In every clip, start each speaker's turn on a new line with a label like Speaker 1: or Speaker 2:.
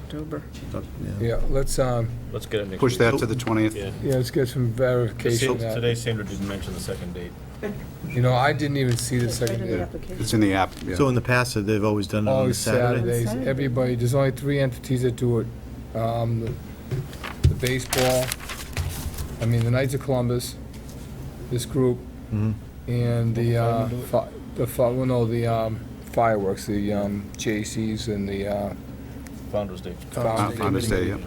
Speaker 1: October.
Speaker 2: Yeah, let's, um,
Speaker 3: Let's get it next.
Speaker 4: Push
Speaker 3: week.
Speaker 4: that to the 20th.
Speaker 3: Yeah.
Speaker 2: yeah, let's get some verification. of that.
Speaker 3: Today Sandra didn't mention the second date.
Speaker 2: You know, I didn't even see the second day.
Speaker 4: It's in the app, yeah.
Speaker 5: So in the past, they've always done it on a
Speaker 2: Always
Speaker 5: Saturday?
Speaker 2: Saturdays,
Speaker 1: Saturday.
Speaker 2: everybody, there's only three entities that do it. Um, the- The baseball, I mean, the Knights of Columbus, this group,
Speaker 5: Mhm.
Speaker 2: and the, uh, fi- the, fi- well, no, the um, fireworks, the um, J.C.'s and the, uh,
Speaker 3: Founder's Day.
Speaker 4: Uh, On this day, yeah.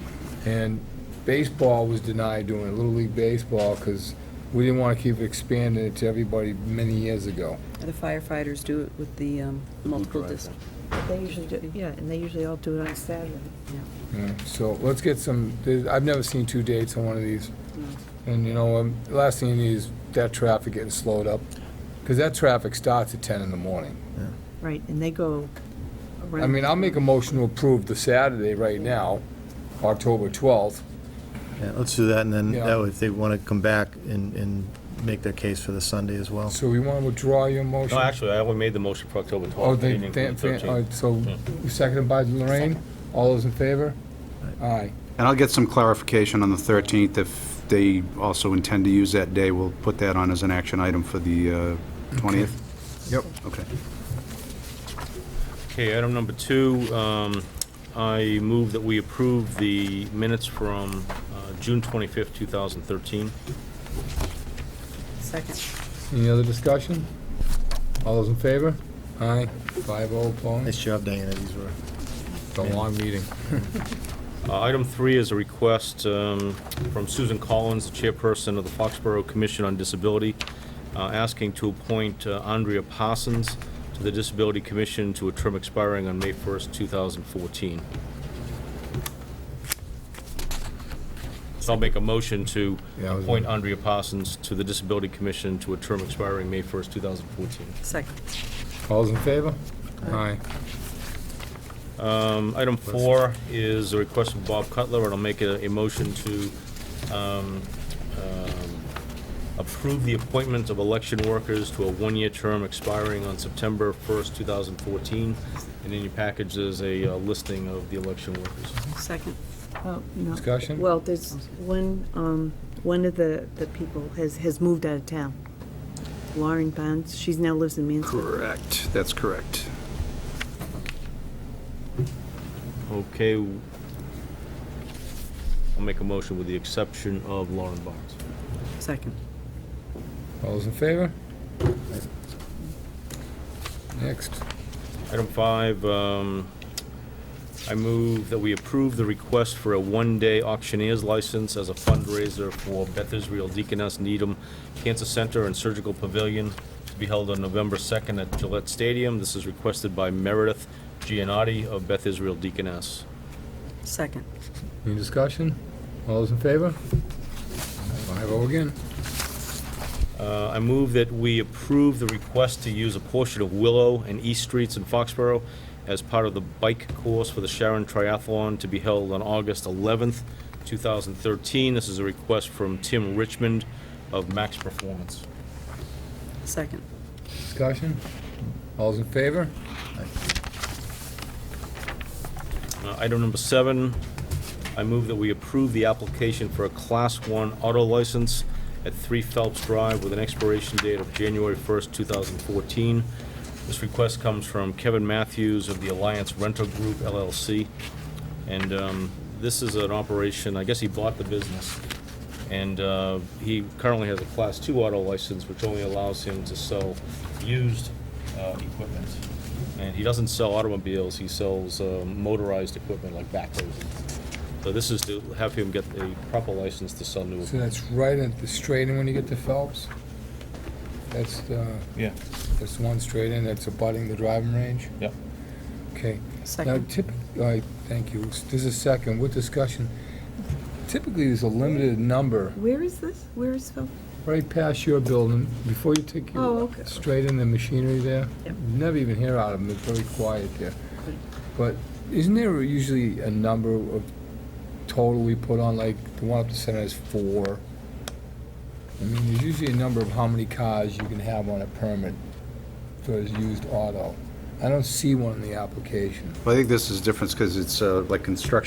Speaker 2: And baseball was denied doing it, Little League Baseball, because we didn't want to keep expanding it to everybody many years ago.
Speaker 6: The firefighters do it with the um, multiple dis,
Speaker 1: They usually do, yeah, and they usually all do it on Saturday.
Speaker 2: Yeah, So let's get some, there- I've never seen two dates on one of these. And you know, um, last thing you need is that traffic getting slowed up, because that traffic starts at 10 in the morning.
Speaker 1: Right, and they go around.
Speaker 2: I mean, I'll make a motion to approve the Saturday right now, October 12th.
Speaker 5: Yeah, let's do that, and then,
Speaker 2: Yeah.
Speaker 5: that way, if they want to come back and, and make their case for the Sunday as well.
Speaker 2: So we want to withdraw your motion?
Speaker 3: Oh. No, actually, I only made the motion for October 12th.
Speaker 2: Oh,
Speaker 3: I
Speaker 2: they,
Speaker 3: didn't
Speaker 2: they-
Speaker 3: include
Speaker 2: they-
Speaker 3: 13th.
Speaker 2: all right, so seconded by Lorraine, all those in favor? Aye.
Speaker 4: And I'll get some clarification on the 13th. If they also intend to use that day, we'll put that on as an action item for the uh, 20th.
Speaker 2: Yep.
Speaker 4: Okay.
Speaker 3: Okay, item number two, um, I move that we approve the minutes from uh, June 25th, 2013.
Speaker 6: second.
Speaker 2: Any other discussion? All those in favor? Aye, five oh opposed,
Speaker 5: Nice job, Diana, these were.
Speaker 2: it's a long meeting.
Speaker 3: Uh, Item three is a request um, from Susan Collins, the chairperson of the Foxborough Commission on Disability, uh, asking to appoint uh, Andrea Parsons to the Disability Commission to a term expiring on May 1st, 2014. So I'll make a motion to
Speaker 2: Yeah, I was-
Speaker 3: appoint Andrea Parsons to the Disability Commission to a term expiring May 1st, 2014.
Speaker 6: Second.
Speaker 2: All those in favor? Aye.
Speaker 3: Um, Item four is a request from Bob Cutler, and I'll make a, a motion to um, um, approve the appointment of election workers to a one-year term expiring on September 1st, 2014. And in your package is a uh, listing of the election workers.
Speaker 6: Second.
Speaker 1: Oh, no.
Speaker 2: Discussion?
Speaker 1: Well, there's one, um, one of the, the people has, has moved out of town. Lauren Bonds, she's now lives in Mansfield.
Speaker 4: Correct, that's correct.
Speaker 3: Okay. I'll make a motion with the exception of Lauren Barnes.
Speaker 6: Second.
Speaker 2: All those in favor? Next.
Speaker 3: Item five, um, I move that we approve the request for a one-day auctioneer's license as a fundraiser for Bethesda Real Deaconess Needham Cancer Center and Surgical Pavilion to be held on November 2nd at Gillette Stadium. This is requested by Meredith Giannotti of Beth Israel Deaconess.
Speaker 6: Second.
Speaker 2: Any discussion? All those in favor? Five oh again.
Speaker 3: Uh, I move that we approve the request to use a portion of Willow and East Streets in Foxborough as part of the bike course for the Sharon Triathlon to be held on August 11th, 2013. This is a request from Tim Richmond of Max Performance.
Speaker 6: Second.
Speaker 2: Discussion? All those in favor?
Speaker 3: Uh, Item number seven, I move that we approve the application for a Class 1 auto license at 3 Phelps Drive with an expiration date of January 1st, 2014. This request comes from Kevin Matthews of the Alliance Rental Group LLC. And um, this is an operation, I guess he bought the business. And uh, he currently has a Class 2 auto license, which only allows him to sell used uh, equipment. And he doesn't sell automobiles, he sells uh, motorized equipment like backhoes. So this is to have him get a proper license to sell new.
Speaker 2: So that's right at the straight in when you get to Phelps? That's, uh,
Speaker 3: Yeah.
Speaker 2: that's one straight in that's abutting the driving range?
Speaker 3: Yep.
Speaker 2: Okay. Now,
Speaker 6: Second.
Speaker 2: typically, thank you. There's a second, with discussion, typically, there's a limited number
Speaker 1: Where is this? Where is Phil?
Speaker 2: right past your building, before you take
Speaker 1: Oh,
Speaker 2: your,
Speaker 1: okay.
Speaker 2: straight in the machinery there.
Speaker 1: Yep.
Speaker 2: You Never even hear out of them, they're very quiet there. But isn't there usually a number of total we put on, like, the one up the center is four? I mean, there's usually a number of how many cars you can have on a permit for a used auto. I don't see one in the application.
Speaker 4: Well, I think this is different because it's uh, like construction